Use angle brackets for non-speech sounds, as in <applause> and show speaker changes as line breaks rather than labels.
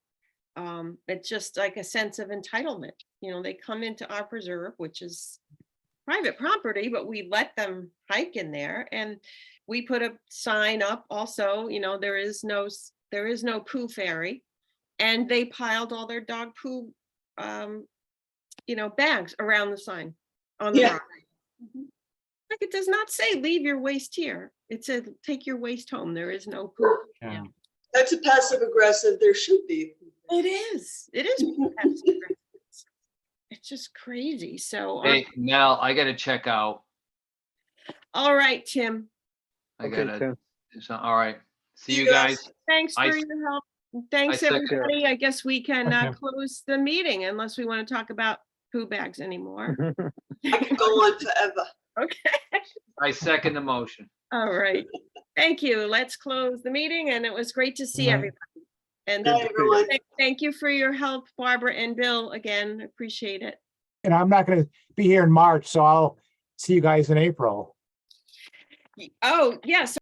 um, it's just like a sense of entitlement. You know, they come into our preserve, which is private property, but we let them hike in there and we put a sign up also, you know, there is no, s- there is no poo fairy. And they piled all their dog poo, um, you know, bags around the sign on the
Yeah.
rock. Like it does not say leave your waste here. It said take your waste home. There is no poo.
Yeah.
Um,
That's a passive aggressive, there should be.
It is, it is. <laughs> passive aggressive. It's just crazy. So, um,
Hey, Mel, I gotta check out.
all right, Tim,
I
Okay,
gotta,
Tim.
it's not- all right. See
See
you
you guys.
guys.
thanks
I
for
s-
your help. and Thanks,
I second.
everybody. I guess we can uh,
Okay.
close the meeting unless we want to talk about poo bags <laughs> anymore.
I could go on forever.
I second the motion.
All right, thank you. Let's close the meeting and it was great to see
Night.
everybody. And
Night, everyone.
thank- thank you for your help, Barbara and Bill, again, appreciate it.
And I'm not gonna be here in March, so I'll see you guys in April.
Oh, yes,